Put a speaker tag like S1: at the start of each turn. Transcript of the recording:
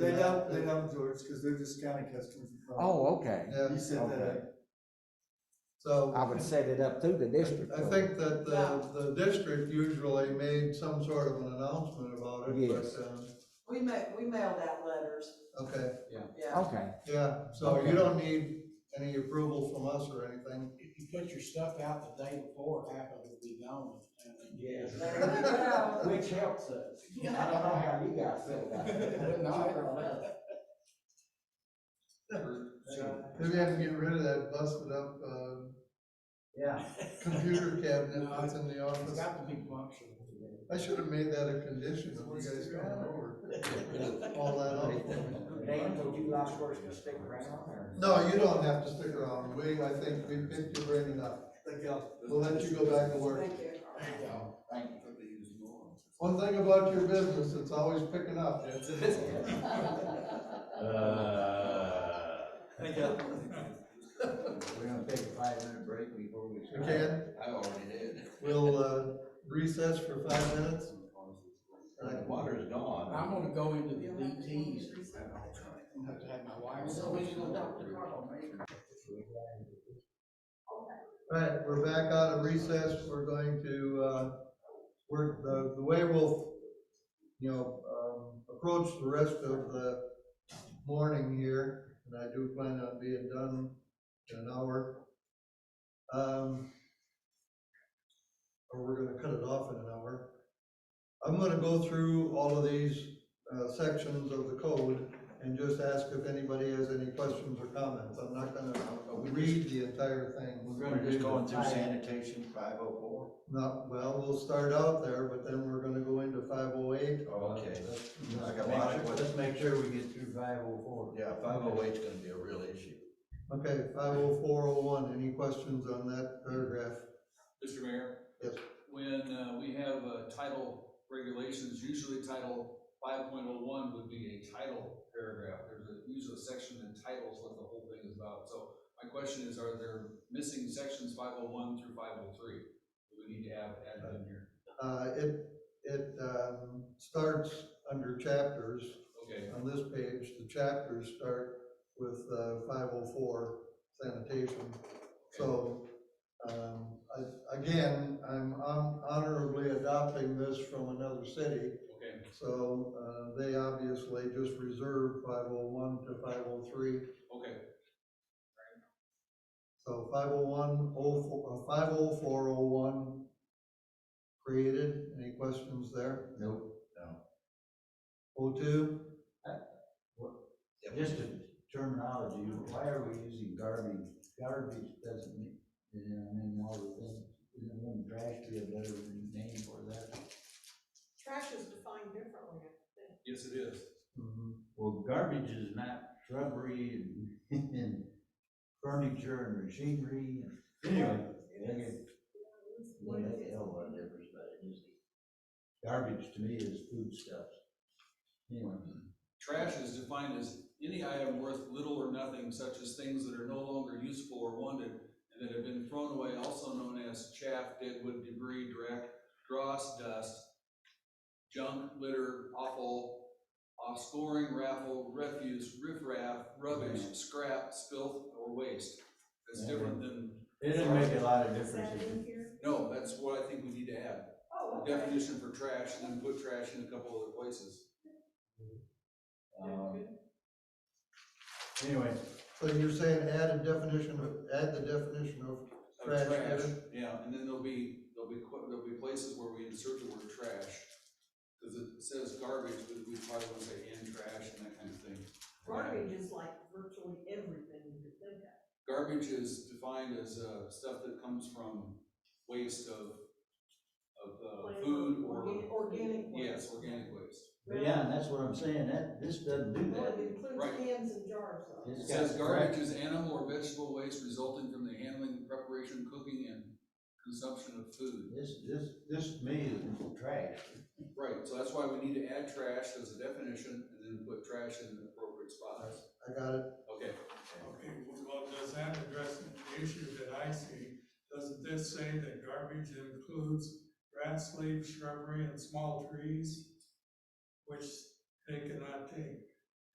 S1: They don't, they don't, George, because they're just county customers.
S2: Oh, okay.
S1: He
S3: Yeah,
S1: set that
S2: Okay.
S1: up.
S3: so.
S2: I would set it up through the district.
S3: I
S2: court.
S3: think that the, the district usually made some sort of an announcement about it,
S2: Yes.
S3: but, um,
S4: We ma, we mailed out letters,
S3: okay,
S4: yeah.
S2: Okay,
S3: yeah, so
S2: Okay.
S3: you don't need any approval from us or anything.
S5: If you put your stuff out the day before, half of it will be gone.
S6: Yes.
S4: There you go.
S6: Which helps us. I don't know how you guys feel about it. but no, it don't matter.
S3: Maybe I have to get rid of that busted up, uh,
S6: Yeah.
S3: computer cabinet
S5: No,
S3: that's in the
S5: It's
S3: office.
S5: got to be functional.
S3: I should have made that a condition when you guys come over, all that up for me.
S6: Dan, would you like for us to stick around or?
S3: No, you don't have to stick around, we, I think we picked your brain enough.
S1: Thank y'all.
S3: We'll let you go back to work.
S4: Thank you.
S6: Thank you.
S3: One thing about your business, it's always picking up.
S1: Thank y'all.
S6: We're gonna take a five minute break before we.
S3: We can,
S6: I already did.
S3: we'll uh, recess for five minutes.
S6: The water's gone.
S5: I'm gonna go into the DTs. I'm gonna have to have my wife.
S3: All right, we're back out of recess, we're going to, uh, we're, the, the way we'll, you know, um, approach the rest of the morning here, and I do plan on being done in an hour. Um, or we're gonna cut it off in an hour. I'm gonna go through all of these, uh, sections of the code and just ask if anybody has any questions or comments. I'm not gonna uh, read the entire thing.
S6: We're gonna just going through sanitation five oh
S3: No, well, we'll start out there, but then we're gonna go into five oh eight.
S6: four? Okay. I got a lot of
S3: Let's
S6: questions.
S3: make sure we get through five oh four.
S6: Yeah, five oh eight's gonna be a real issue.
S3: Okay, five oh four oh one, any questions on that paragraph?
S7: Mr. Mayor?
S3: Yes.
S7: When, uh, we have, uh, title regulations, usually title five point oh one would be a title paragraph. There's a, usually a section that titles what the whole thing is about. So my question is, are there missing sections five oh one through five oh three? Do we need to have added in here?
S3: Uh, it, it, um, starts under chapters,
S7: Okay,
S3: on this page, the chapters start with, uh, five oh four sanitation. So, um, I, again, I'm hon- honorably adopting this from another city.
S7: okay,
S3: So, uh, they obviously just reserved five oh one to five oh three.
S7: okay.
S3: So five oh one, oh, four, five oh four oh one created. Any questions there?
S6: Nope.
S3: Oh two,
S6: Just a terminology, why are we using garbage? Garbage doesn't mean, you know, I mean, all the things, you know, when trash be a better name for that.
S4: Trash is defined differently, I
S7: Yes, it is.
S6: Mm-hmm. Well, garbage is not shrubbery and, and furniture and machinery and. Anyway. They get,
S4: think.
S6: what the hell are different, but it is. Garbage to me is food stuff. Anyway.
S7: Trash is defined as any item worth little or nothing, such as things that are no longer useful or wanted and that have been thrown away, also known as chaff, deadwood, debris, dreck, dross, dust, junk, litter, offal, offscoring, raffle, refuse, riffraff, rubbish, scrap, filth, or waste. That's different than,
S6: It doesn't make a lot of
S4: Is that
S6: difference.
S4: in here?
S7: no, that's what I think we need to add.
S4: Oh, okay.
S7: Definition for trash and then put trash in a couple other places.
S6: Um, Anyway,
S3: so you're saying add a definition of, add the definition of,
S7: of
S3: Trash,
S7: trash,
S3: yeah.
S7: yeah, and then there'll be, there'll be, qu- there'll be places where we insert the word trash. Cause it says garbage, but we probably wanna say in trash and that kind of thing.
S4: Garbage is like virtually everything you could think of.
S7: Garbage is defined as, uh, stuff that comes from waste of, of, uh,
S4: Plant,
S7: food or,
S4: organ- Organic waste.
S7: yes, organic waste.
S6: but yeah, and that's what I'm saying, that, this doesn't do
S4: Well,
S6: that.
S4: it includes
S7: Right.
S4: cans and jars, though.
S6: It's
S7: It says
S6: got
S7: garbage is animal or vegetable waste resulting from the handling, preparation, cooking, and consumption of food.
S6: This, this, this to me is trash.
S7: Right, so that's why we need to add trash as a definition and then put trash in the appropriate spots.
S3: I got it,
S7: Okay.
S8: Okay, well, does that address the issue that I see? Doesn't this say that garbage includes grass, leaves, shrubbery, and small trees, which they cannot take?